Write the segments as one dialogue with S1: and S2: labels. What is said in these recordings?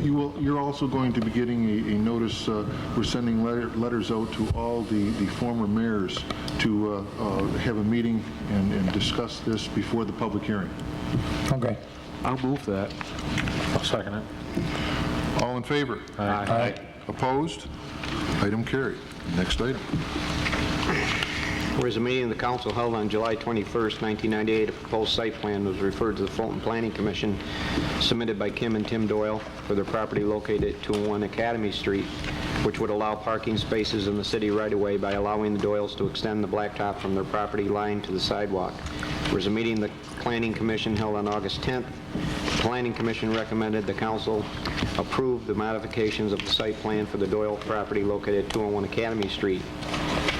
S1: You will, you're also going to be getting a, a notice, uh, we're sending letter, letters out to all the, the former mayors to, uh, uh, have a meeting and, and discuss this before the public hearing.
S2: Okay.
S3: I'll move that. I'll second it.
S1: All in favor?
S3: Aye.
S1: Opposed? Item carried. Next item.
S4: Whereas a meeting of the council held on July 21st, 1998, a proposed site plan was referred to the Fulton Planning Commission, submitted by Kim and Tim Doyle for their property located at 201 Academy Street, which would allow parking spaces in the city right-of-way by allowing the Doyles to extend the blacktop from their property line to the sidewalk. Whereas a meeting of the Planning Commission held on August 10th, the Planning Commission recommended the council approve the modifications of the site plan for the Doyle property located at 201 Academy Street.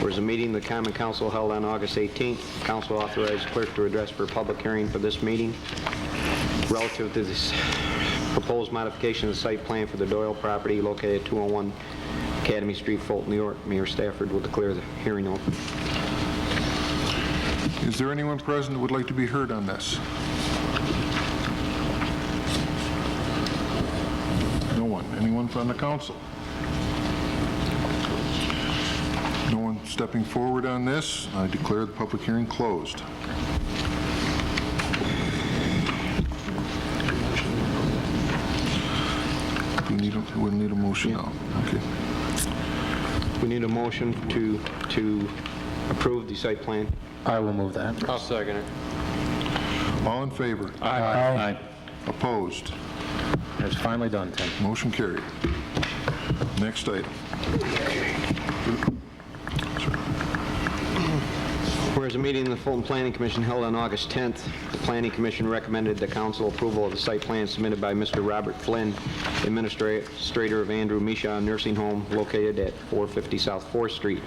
S4: Whereas a meeting of the Common Council held on August 18th, council authorized clerk to address for public hearing for this meeting relative to this proposed modification of the site plan for the Doyle property located at 201 Academy Street, Fulton, New York. Mayor Stafford will declare the hearing open.
S1: Is there anyone present that would like to be heard on this? No one. Anyone from the council? No one stepping forward on this. I declare the public hearing closed. We need, a- we need a motion now. Okay.
S4: We need a motion to, to approve the site plan.
S2: I will move that.
S4: I'll second it.
S1: All in favor?
S2: Aye.
S1: Opposed?
S2: It's finally done, Tim.
S1: Motion carried. Next item.
S4: Whereas a meeting of the Fulton Planning Commission held on August 10th, the Planning Commission recommended the council approval of the site plan submitted by Mr. Robert Flynn, administrator of Andrew Misha Nursing Home located at 450 South 4th Street.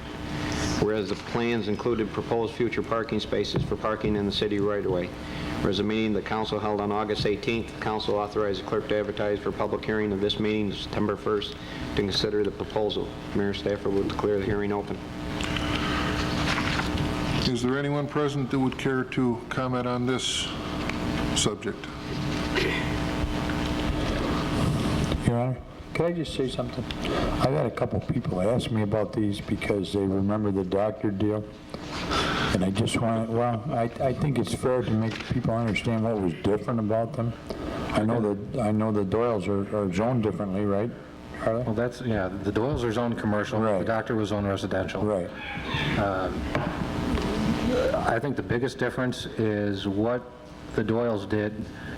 S4: Whereas the plans included proposed future parking spaces for parking in the city right-of-way. Whereas a meeting the council held on August 18th, the council authorized the clerk to advertise for public hearing of this meeting September 1st to consider the proposal. Mayor Stafford will declare the hearing open.
S1: Is there anyone present that would care to comment on this subject?
S5: Your Honor, could I just say something? I've had a couple people ask me about these because they remember the doctor deal, and I just want, well, I, I think it's fair to make people understand what was different about them. I know that, I know the Doyles are are zoned differently, right? Charlie?
S2: Well, that's, yeah, the Doyle's are zoned commercial. The
S5: Right.
S2: doctor was zoned residential.
S5: Right,
S2: I think the biggest difference is what the Doyle's did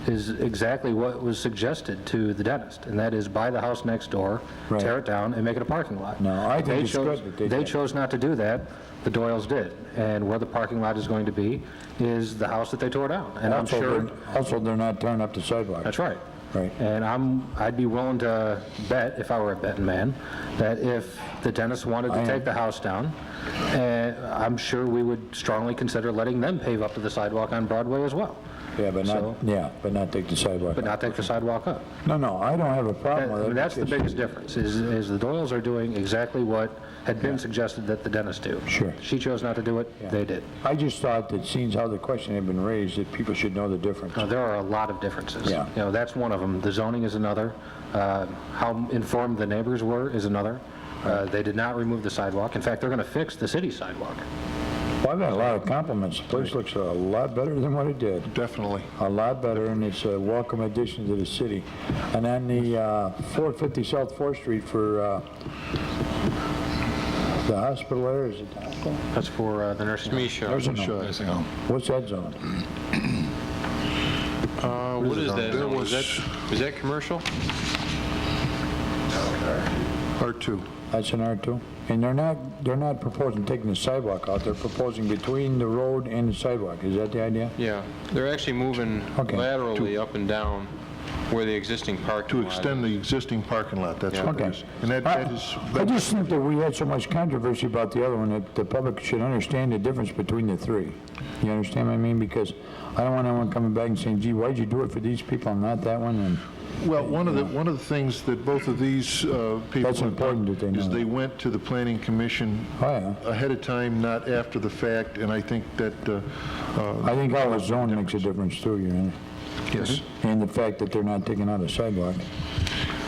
S2: is exactly what was suggested to the dentist, and that is buy the house next door,
S5: Right.
S2: tear it down, and make it a parking lot.
S5: No, I think
S2: They
S5: it's
S2: chose-
S5: good that they did.
S2: chose not to do that, the Doyle's did. And where the parking lot is going to be is the house that they tore down. And I'm
S5: Also,
S2: sure,
S5: they're- Also, they're not tearing up the sidewalk.
S2: that's right.
S5: Right.
S2: And I'm, I'd be willing to bet, if I were a betting man, that if the dentist wanted
S5: I
S2: to
S5: am.
S2: take the house down, eh, I'm sure we would strongly consider letting them pave up to the sidewalk on Broadway as well.
S5: Yeah, but
S2: So-
S5: not, yeah, but not take the sidewalk.
S2: But not take the sidewalk up.
S5: No, no, I don't have a
S2: That-
S5: problem
S2: I
S5: with
S2: mean,
S5: it.
S2: That's the biggest difference, is, is the Doyles are doing exactly what had been suggested that the dentist do.
S5: Sure.
S2: She chose not to do it, they did.
S5: I just thought that seeing how the question had been raised, that people should know the difference.
S2: Now, there are a lot of differences.
S5: Yeah.
S2: You know, that's one of them. The zoning is another. Uh, How informed the neighbors were is another. Uh, They did not remove the sidewalk. In fact, they're going to fix the city sidewalk.
S5: Well, I've had a lot of compliments. The place looks a lot better than what it did.
S1: Definitely.
S5: A lot better, and it's a welcome addition to the city. And on the uh, 450 South 4th Street for uh, the hospital there, is it hospital?
S2: That's for uh, the nursing home.
S5: There's a no. What's that zone?
S6: What is that?
S1: Uh, There
S6: zone? Is
S1: was
S6: that, is that commercial?
S1: R2.
S5: That's an R2? And they're not, they're not proposing taking the sidewalk out, they're proposing between the road and the sidewalk. Is that the idea?
S6: Yeah, they're actually moving
S5: Okay.
S6: laterally up and down where the existing
S1: To
S6: parking lot is.
S1: extend the existing parking lot, that's what it
S5: Okay.
S1: is. And that that is,
S5: I I just think that we had so much controversy about the other one that the public should understand the difference between the three. You understand what I mean? Because I don't want anyone coming back and saying, gee, why'd you do it for these people and not that one? And
S1: well, one of the, one of the things that both of these uh, people...
S5: That's important that they know
S1: Is
S5: that.
S1: they went to the planning commission
S5: Oh, yeah.
S1: ahead of time, not after the fact, and I think that, uh, uh,
S5: I think all the zone makes a difference too, you know?
S1: yes,
S5: And the fact that they're not taking out a sidewalk.